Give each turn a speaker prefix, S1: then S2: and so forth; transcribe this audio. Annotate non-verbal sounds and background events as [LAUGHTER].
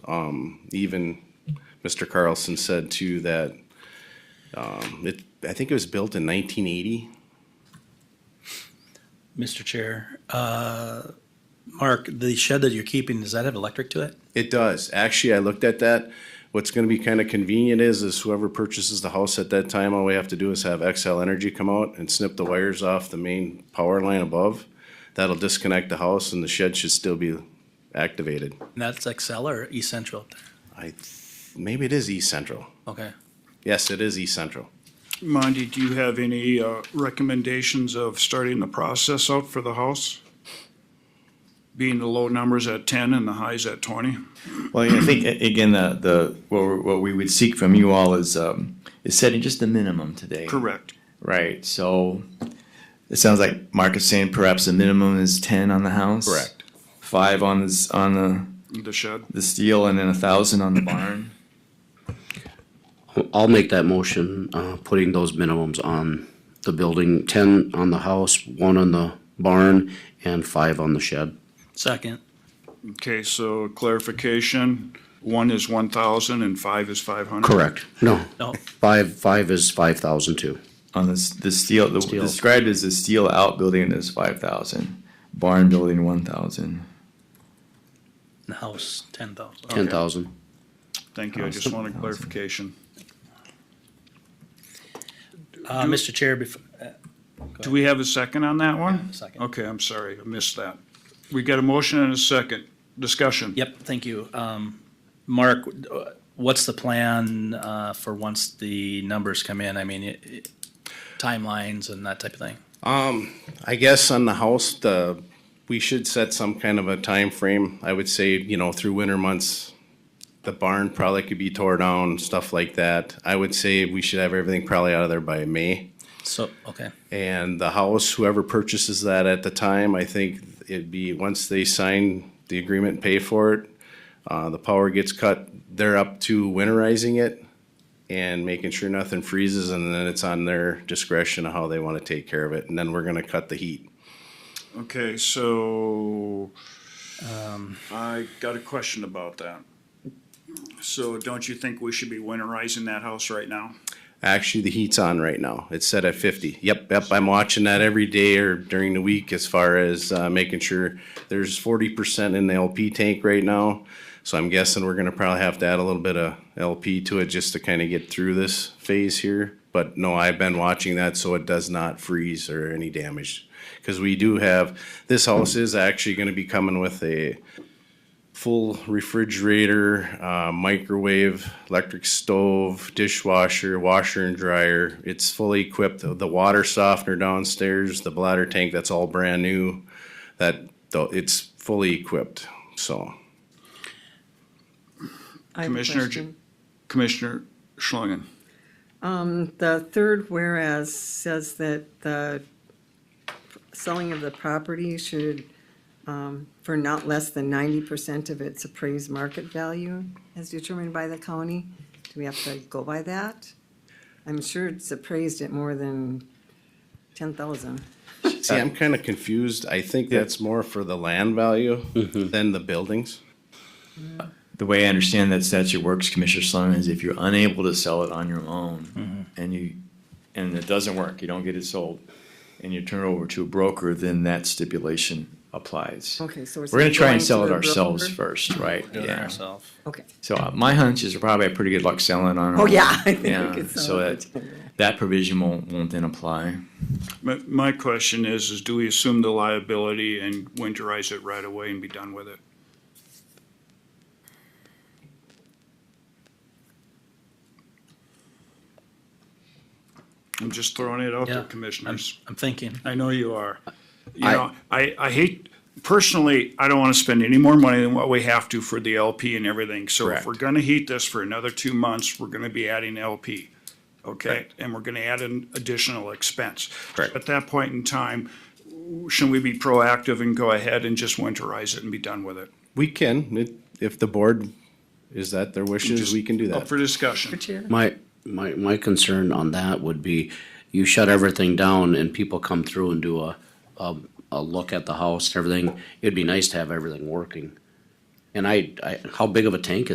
S1: Um, even Mr. Carlson said too that, um, it, I think it was built in nineteen eighty.
S2: Mr. Chair, uh, Mark, the shed that you're keeping, does that have electric to it?
S1: It does. Actually, I looked at that. What's gonna be kinda convenient is, is whoever purchases the house at that time, all we have to do is have XL Energy come out and snip the wires off the main power line above. That'll disconnect the house and the shed should still be activated.
S2: And that's Excel or East Central up there?
S1: I, th- maybe it is East Central.
S2: Okay.
S1: Yes, it is East Central.
S3: Monty, do you have any uh, recommendations of starting the process out for the house? Being the low numbers at ten and the highs at twenty?
S4: Well, I think a- again, the, the, what, we- what we would seek from you all is, um, is setting just the minimum today.
S3: Correct.
S4: Right, so it sounds like Mark is saying perhaps the minimum is ten on the house.
S1: Correct.
S4: Five on this, on the,
S3: The shed.
S4: the steel and then a thousand on the barn.
S5: I'll make that motion, uh, putting those minimums on the building, ten on the house, one on the barn, and five on the shed.
S2: Second,
S3: Okay, so clarification, one is one thousand and five is five hundred?
S5: Correct. No,
S2: no,
S5: five, five is five thousand two.
S4: On this, the steel, the
S5: Steel.
S4: described as the steel outbuilding is five thousand, barn building one thousand.
S2: the house, ten thousand.
S5: Ten thousand.
S3: Thank you, I just wanted clarification.
S2: Uh, Mr. Chair, before,
S3: Do we have a second on that one?
S2: second.
S3: Okay, I'm sorry, I missed that. We got a motion and a second. Discussion.
S2: Yep, thank you. Um, Mark, uh, what's the plan, uh, for once the numbers come in? I mean, it- it- timelines and that type of thing?
S1: Um, I guess on the house, the, we should set some kind of a time frame. I would say, you know, through winter months, the barn probably could be tore down, stuff like that. I would say we should have everything probably out of there by May.
S2: So, okay,
S1: And the house, whoever purchases that at the time, I think it'd be, once they sign the agreement, and pay for it, uh, the power gets cut, they're up to winterizing it and making sure nothing freezes, and then it's on their discretion of how they wanna take care of it, and then we're gonna cut the heat.
S3: Okay, so I got a question about that. So don't you think we should be winterizing that house right now?
S1: Actually, the heat's on right now. It's set at fifty. Yep, yep, I'm watching that every day or during the week as far as, uh, making sure there's forty percent in the LP tank right now. So I'm guessing we're gonna probably have to add a little bit of LP to it just to kinda get through this phase here. But no, I've been watching that so it does not freeze or any damage. Cause we do have, this house is actually gonna be coming with a full refrigerator, uh, microwave, electric stove, dishwasher, washer and dryer. It's fully equipped. The, the water softener downstairs, the bladder tank, that's all brand new. That though it's fully equipped. So
S6: I have a
S3: Commissioner J-
S6: question.
S3: Commissioner Schlungen,
S6: The third whereas says that the selling of the property should, um, for not less than ninety percent of its appraised market value as determined by the county. Do we have to go by that? I'm sure it's appraised at more than ten thousand.
S1: see, I'm kind of confused. I think that's more for the land value than the buildings.
S4: The way I understand that statute works, Commissioner Solomon, is if you're unable to sell it on your own and you, and it doesn't work, you don't get it sold, and you turn it over to a broker, then that stipulation applies.
S6: Okay, so it's
S4: We're gonna try
S6: going
S4: and
S6: to
S4: sell it
S6: a
S4: ourselves
S6: broker?
S4: first, right?
S2: doing it
S4: Yeah.
S2: ourselves.
S6: Okay,
S4: So uh, my hunch is probably have pretty good luck selling on. our
S6: oh,
S4: own.
S6: yeah. [LAUGHS] I think we
S4: Yeah,
S6: could sell
S4: so
S6: it.
S4: that, that provision won't, won't then apply.
S3: my, my question is, is do we assume the liability and winterize it right away and be done with it? I'm just throwing it out
S2: Yeah,
S3: there,
S2: I'm-
S3: commissioners.
S2: I'm thinking.
S3: I know you are. You
S5: I-
S3: know, I, I hate, personally, I don't wanna spend any more money than what we have to for the LP and everything. So if
S4: Correct.
S3: we're gonna heat this for another two months, we're gonna be adding LP. Okay, and we're gonna add an additional expense.
S1: Correct.
S3: At that point in time, shouldn't we be proactive and go ahead and just winterize it and be done with it?
S1: We can, it, if the board is that their wishes,
S3: Just Oh,
S1: we can do
S3: Up
S1: that.
S3: for discussion.
S6: Chair?
S5: My, my, my concern on that would be, you shut everything down and people come through and do a, a, a look at the house and everything. It'd be nice to have everything working. And I, I, how big of a tank